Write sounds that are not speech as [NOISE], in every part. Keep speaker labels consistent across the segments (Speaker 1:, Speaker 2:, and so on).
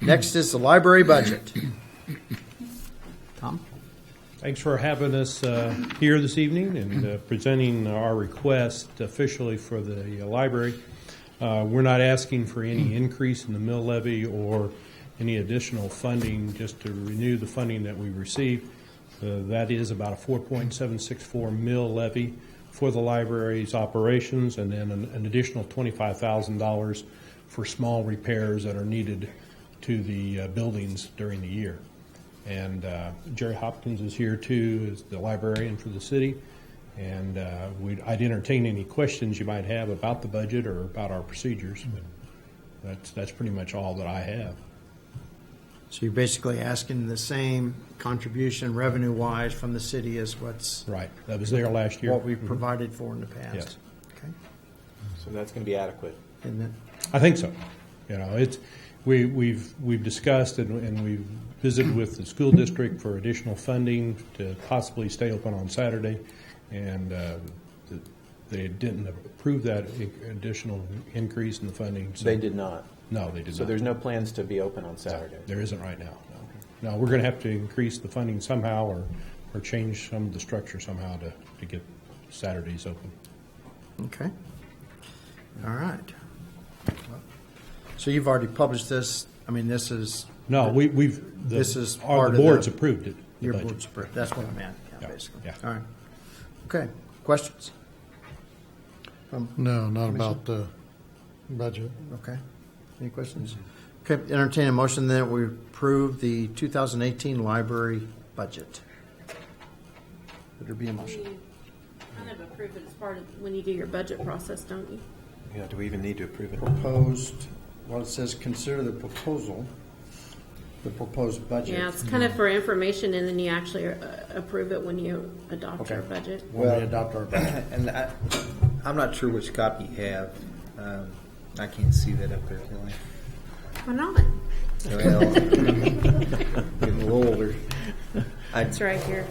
Speaker 1: Next is the library budget.
Speaker 2: Tom?
Speaker 3: Thanks for having us uh, here this evening and uh, presenting our request officially for the uh, library. Uh, We're not asking for any increase in the mill levy or any additional funding, just to renew the funding that we received. Uh, That is about a 4.764 mill levy for the library's operations, and then an an additional $25,000 for small repairs that are needed to the uh, buildings during the year. And uh, Jerry Hopkins is here too, is the librarian for the city. And uh, we'd, I'd entertain any questions you might have about the budget or about our procedures. But That's, that's pretty much all that I have.
Speaker 2: So you're basically asking the same contribution revenue-wise from the city as what's,
Speaker 3: Right, that was there last year. Mm-hmm.
Speaker 2: what we've provided for in the past?
Speaker 3: Yes.
Speaker 2: Okay,
Speaker 4: So that's going to be adequate.
Speaker 2: and then,
Speaker 3: I think so. You know, it's, we, we've, we've discussed and, and we've visited with the school district for additional funding to possibly stay open on Saturday. And uh, th- they didn't approve that i- additional increase in the funding. so-
Speaker 4: They did not.
Speaker 3: No, they did not.
Speaker 4: So there's no plans to be open on Saturday.
Speaker 3: There isn't right now, no. No, we're going to have to increase the funding somehow or, or change some of the structure somehow to, to get Saturdays open.
Speaker 2: okay. All right.
Speaker 1: So you've already published this. I mean, this is
Speaker 3: No, we, we've, the,
Speaker 1: This is
Speaker 3: our
Speaker 1: part
Speaker 3: the
Speaker 1: of the-
Speaker 3: board's approved it. the
Speaker 1: your
Speaker 3: budget.
Speaker 1: board's approved. That's what I meant, yeah,
Speaker 3: Yeah,
Speaker 1: basically.
Speaker 3: yeah.
Speaker 1: All right. Okay, questions?
Speaker 5: No, not about the budget.
Speaker 1: Okay. Any questions? Okay, entertain a motion that we approve the 2018 library budget. Would there be a motion?
Speaker 6: You Kind of approve it as part of, when you do your budget process, don't you?
Speaker 4: Yeah, do we even need to approve it?
Speaker 1: Proposed, well, it says consider the proposal, the proposed budget.
Speaker 6: Yeah, it's kind of for information, and then you actually uh, approve it when you adopt your
Speaker 1: Okay.
Speaker 6: budget.
Speaker 1: When we adopt our budget.
Speaker 7: And I, I'm not sure which copy you have. Um, I can't see that up there, Kelly.
Speaker 6: Why not?
Speaker 7: Well, [LAUGHS] getting a little older.
Speaker 6: It's right here.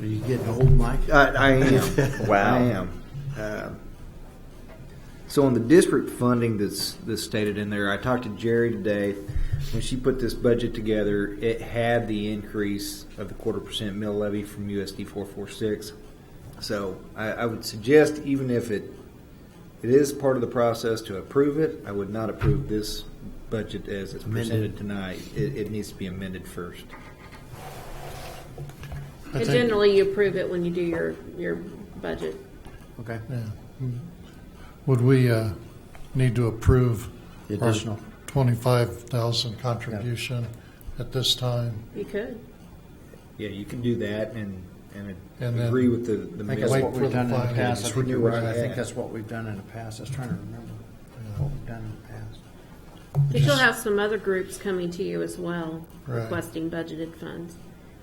Speaker 1: Are you getting old, Mike?
Speaker 7: I, I am.
Speaker 4: Wow.
Speaker 7: I am. Um, so on the district funding that's that's stated in there, I talked to Jerry today. When she put this budget together, it had the increase of the quarter percent mill levy from USD four four six. So I, I would suggest, even if it it is part of the process to approve it, I would not approve this budget as it's presented tonight. It, it needs to be amended first.
Speaker 6: And generally, you approve it when you do your, your budget.
Speaker 1: Okay.
Speaker 5: Would we uh, need to approve?
Speaker 1: The
Speaker 5: our
Speaker 1: additional.
Speaker 5: 25,000 contribution at this time?
Speaker 6: You could.
Speaker 7: Yeah, you can do that and and,
Speaker 5: And then-
Speaker 7: agree with the the
Speaker 1: I think that's
Speaker 7: mill
Speaker 1: what
Speaker 5: Wait
Speaker 1: we've
Speaker 5: for
Speaker 1: done
Speaker 5: the
Speaker 1: in the past. I
Speaker 5: finance.
Speaker 1: think you're
Speaker 7: We'll
Speaker 1: right.
Speaker 7: do
Speaker 1: I
Speaker 7: that.
Speaker 1: think that's what we've done in the past. I was trying to remember what we've done in the past.
Speaker 6: But you'll have some other groups coming to you as well,
Speaker 5: Right.
Speaker 6: requesting budgeted funds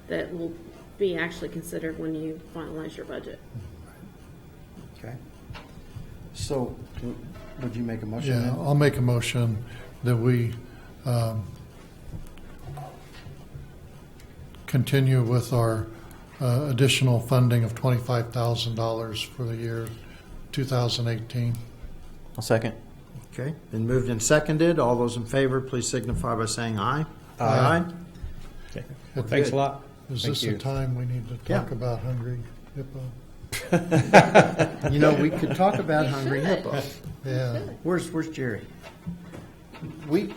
Speaker 6: that will be actually considered when you finalize your budget.
Speaker 1: Okay. So, w- would you make a motion?
Speaker 5: Yeah,
Speaker 1: then?
Speaker 5: I'll make a motion that we um, continue with our uh, additional funding of $25,000 for the year 2018.
Speaker 4: I'll second.
Speaker 1: Okay, been moved and seconded. All those in favor, please signify by saying aye. Aye.
Speaker 5: Well,
Speaker 3: Thanks
Speaker 1: good.
Speaker 3: a lot.
Speaker 5: Is
Speaker 3: Thank
Speaker 5: this the
Speaker 3: you.
Speaker 5: time we need to talk
Speaker 1: Yeah.
Speaker 5: about Hungry Hippo?
Speaker 1: You know, we could talk about Hungry
Speaker 6: should.
Speaker 1: Hippo.
Speaker 5: Yeah,
Speaker 1: Where's, where's Jerry? We,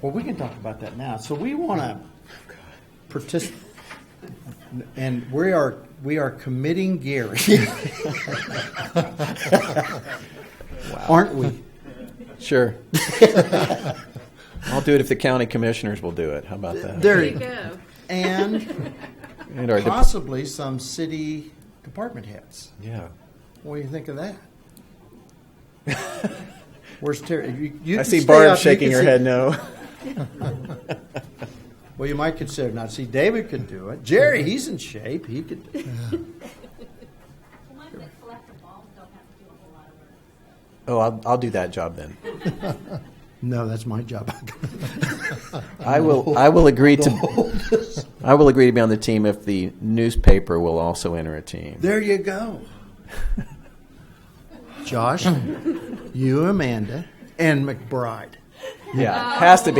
Speaker 1: well, we can talk about that now. So we want to participate, and we are, we are committing Gary. Aren't we?
Speaker 4: [LAUGHS] [LAUGHS] Sure. I'll do it if the county commissioners will do it. How about that?
Speaker 1: There
Speaker 6: There
Speaker 1: you
Speaker 6: you
Speaker 1: go.
Speaker 6: go.
Speaker 1: And
Speaker 4: And our de-
Speaker 1: possibly some city department heads.
Speaker 4: Yeah.
Speaker 1: What do you think of
Speaker 4: [LAUGHS]
Speaker 1: that? Where's Terry? You- you
Speaker 4: I
Speaker 1: can
Speaker 4: see
Speaker 1: stay
Speaker 4: Barb
Speaker 1: up. You
Speaker 4: shaking
Speaker 1: can
Speaker 4: her
Speaker 1: sit-
Speaker 4: head no.
Speaker 1: Well, you might consider not. See, David could do it. Jerry,
Speaker 4: Mm-hmm.
Speaker 1: he's in shape. He could.
Speaker 8: The ones that collect the balls don't have to do a whole lot of work.
Speaker 4: Oh, I'll, I'll do that job [LAUGHS] then.
Speaker 1: No, that's my job. [LAUGHS]
Speaker 4: I will, I will agree to, I will agree to be on the team if the newspaper will also enter a team.
Speaker 1: there you go.
Speaker 4: [LAUGHS]
Speaker 1: Josh, you, Amanda, and McBride.
Speaker 4: Yeah, has to be.